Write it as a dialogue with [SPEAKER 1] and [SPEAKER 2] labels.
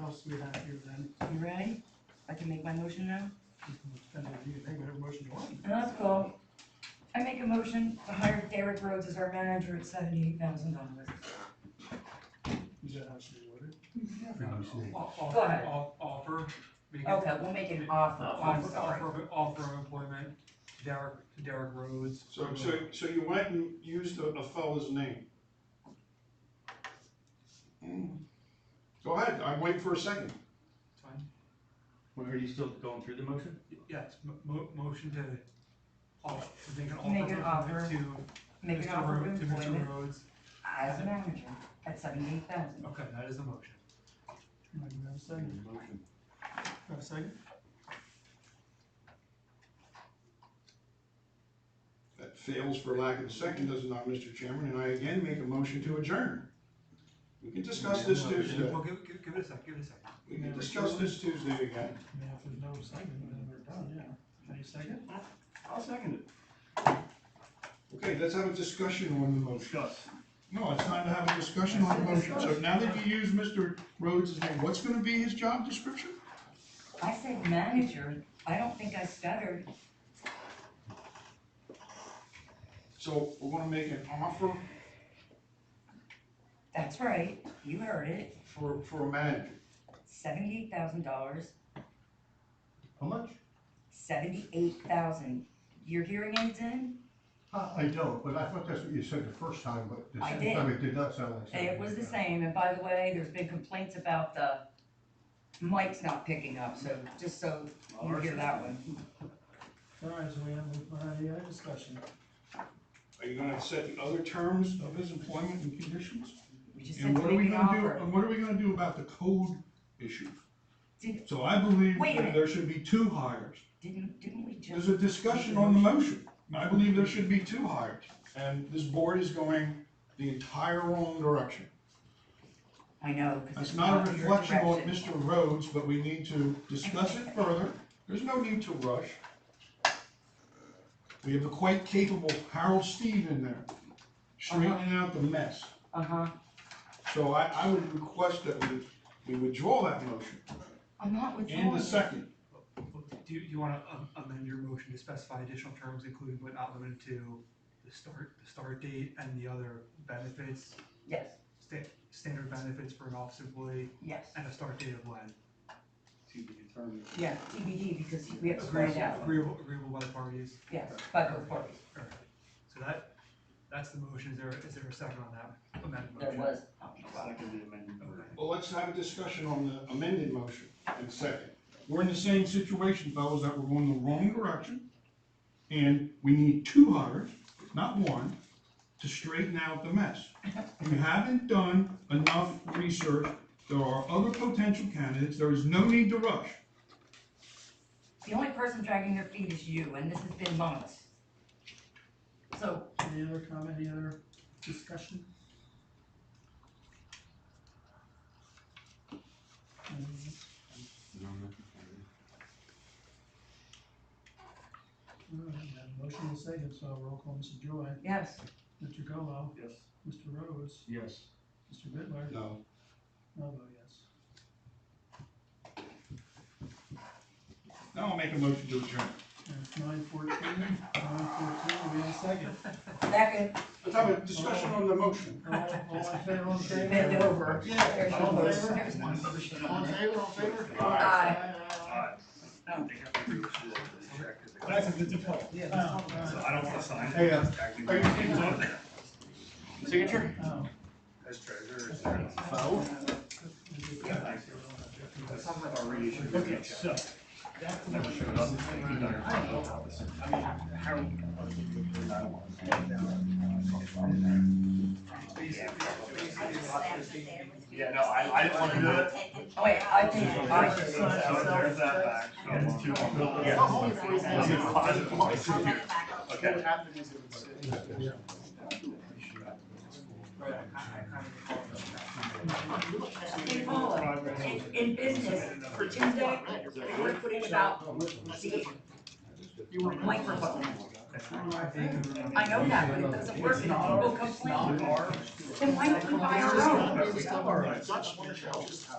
[SPEAKER 1] else we have here then?
[SPEAKER 2] You ready? I can make my motion now?
[SPEAKER 1] We can spend it, You can make whatever motion you want.
[SPEAKER 2] That's cool. I make a motion to hire Derek Rhodes as our manager at seventy-eight thousand dollars.
[SPEAKER 1] Is that how she's ordered?
[SPEAKER 3] Pretty much it.
[SPEAKER 2] Go ahead.
[SPEAKER 4] Offer, make it,
[SPEAKER 2] Okay, we'll make it an offer, I'm
[SPEAKER 4] offer,
[SPEAKER 2] sorry.
[SPEAKER 4] offer, of- offer of employment, to Derek, to Derek Rhodes.
[SPEAKER 5] So, so, so you went and used a, a fella's name? Go ahead, I'm waiting for a second.
[SPEAKER 4] It's fine.
[SPEAKER 3] Well, Are you still going through the motion?
[SPEAKER 4] Yeah, it's mo- mo- motion to, off, to make an offer.
[SPEAKER 2] Make an offer.
[SPEAKER 4] To
[SPEAKER 2] Make an
[SPEAKER 4] Mr.
[SPEAKER 2] offer of
[SPEAKER 4] Rhodes, to Mr.
[SPEAKER 2] employment
[SPEAKER 4] Rhodes,
[SPEAKER 2] as a manager at seventy-eight thousand.
[SPEAKER 4] okay, that is the motion.
[SPEAKER 1] Right, we have a second.
[SPEAKER 3] Motion.
[SPEAKER 1] Have a second?
[SPEAKER 5] That fails for lack of a second, does it not, Mr. Chairman, and I again make a motion to adjourn. We can discuss this Tuesday,
[SPEAKER 4] Well, give, give, give it a sec, give it a sec.
[SPEAKER 5] we can discuss this Tuesday again.
[SPEAKER 1] I mean, if there's no second, then we're done, yeah. Any second?
[SPEAKER 3] I'll second it.
[SPEAKER 5] Okay, let's have a discussion on the motion.
[SPEAKER 3] Discuss.
[SPEAKER 5] No, it's time to have a discussion on the motion, so now that you use Mr. Rhodes' name, what's gonna be his job description?
[SPEAKER 2] I said manager, I don't think I stuttered.
[SPEAKER 5] So, we're gonna make an offer
[SPEAKER 2] That's right, you heard it,
[SPEAKER 5] for, for a manager.
[SPEAKER 2] seventy-eight thousand dollars,
[SPEAKER 3] How much?
[SPEAKER 2] seventy-eight thousand. Your hearing aids in?
[SPEAKER 6] Uh, I don't, but I thought that's what you said the first time, but the
[SPEAKER 2] I
[SPEAKER 6] second
[SPEAKER 2] did.
[SPEAKER 6] time it did not sound like that.
[SPEAKER 2] It was the same, and by the way, there's been complaints about the mic's not picking up, so just so you hear that one.
[SPEAKER 1] All right, so we have, we have any other discussion?
[SPEAKER 5] Are you gonna set the other terms of his employment and conditions?
[SPEAKER 2] We just said
[SPEAKER 5] And
[SPEAKER 2] to
[SPEAKER 5] what are we
[SPEAKER 2] make an
[SPEAKER 5] gonna do,
[SPEAKER 2] offer.
[SPEAKER 5] and what are we gonna do about the code issue?
[SPEAKER 2] Did-
[SPEAKER 5] So I believe
[SPEAKER 2] Wait a minute.
[SPEAKER 5] that there should be two hires.
[SPEAKER 2] Didn't, didn't we
[SPEAKER 5] There's
[SPEAKER 2] just,
[SPEAKER 5] a discussion on the motion. I believe there should be two hires. And this board is going the entire wrong direction.
[SPEAKER 2] I know, because
[SPEAKER 5] That's
[SPEAKER 2] it's
[SPEAKER 5] not a
[SPEAKER 2] not your
[SPEAKER 5] reflection on
[SPEAKER 2] direction.
[SPEAKER 5] Mr. Rhodes, but we need to discuss it further. There's no need to rush. We have a quite capable Harold Steve in there, straightening out the mess.
[SPEAKER 2] Uh-huh,
[SPEAKER 5] So I, I would request that we, we withdraw that motion
[SPEAKER 2] I'm not withdrawing.
[SPEAKER 5] and the second.
[SPEAKER 4] Do you, you wanna am- amend your motion to specify additional terms, including but not limited to the start, the start date and the other benefits,
[SPEAKER 2] Yes,
[SPEAKER 4] sta- standard benefits for an office employee,
[SPEAKER 2] yes,
[SPEAKER 4] and a start date of when?
[SPEAKER 3] To be determined.
[SPEAKER 2] yeah, TBD, because we have to find
[SPEAKER 4] Agreeable,
[SPEAKER 2] out,
[SPEAKER 4] agreeable, agreeable by the parties.
[SPEAKER 2] yes, by both parties,
[SPEAKER 4] Alright, so that, that's the motion, is there, is there a second on that amended
[SPEAKER 2] there
[SPEAKER 4] motion?
[SPEAKER 2] was. oh,
[SPEAKER 3] Second amendment.
[SPEAKER 5] Well, let's have a discussion on the amended motion and second. We're in the same situation, fellas, that we're going the wrong direction. And we need two hires, not one, to straighten out the mess. You haven't done enough research. There are other potential candidates. There is no need to rush.
[SPEAKER 2] The only person dragging their feet is you, and this has been months. So,
[SPEAKER 1] Any other comment, any other discussion? Um, All right, we have a Motion and second, so roll call, Mr. Joy,
[SPEAKER 2] yes,
[SPEAKER 1] Mr. Gallo,
[SPEAKER 3] Yes.
[SPEAKER 1] Mr. Rose,
[SPEAKER 3] Yes.
[SPEAKER 1] Mr. Bitler,
[SPEAKER 5] No.
[SPEAKER 1] I'll vote yes.
[SPEAKER 5] Now I'll make a motion to adjourn.
[SPEAKER 1] And it's nine fourteen, nine fourteen, we have a second.
[SPEAKER 2] second,
[SPEAKER 5] Let's have a discussion on the motion.
[SPEAKER 1] All, all in favor, all in favor?
[SPEAKER 2] bend over.
[SPEAKER 5] Yeah.
[SPEAKER 2] There's your
[SPEAKER 1] All in
[SPEAKER 2] voice.
[SPEAKER 1] favor?
[SPEAKER 2] There's my motion.
[SPEAKER 5] All in favor, all in favor?
[SPEAKER 2] Aye.
[SPEAKER 7] That's a good point.
[SPEAKER 1] Yeah, that's all
[SPEAKER 7] So
[SPEAKER 1] right.
[SPEAKER 7] I don't want to sign.
[SPEAKER 5] Hey, uh,
[SPEAKER 7] Actually,
[SPEAKER 5] are you-
[SPEAKER 3] Signature?
[SPEAKER 1] Oh,
[SPEAKER 7] As treasurer, is there?
[SPEAKER 1] yeah.
[SPEAKER 7] That sounds like our reissue.
[SPEAKER 1] Okay,
[SPEAKER 7] so. Never showed up. I mean, how? Yeah, no, I, I didn't want to do it.
[SPEAKER 2] Oh, wait, I think, I
[SPEAKER 7] So There's that back. It's two. Yeah. Okay.
[SPEAKER 2] Hey, Paula, in, in business, for Tuesday, we would put in about the microphone. I know that, but it doesn't work and people complain. Then why don't we buy our own?
[SPEAKER 7] It's not our-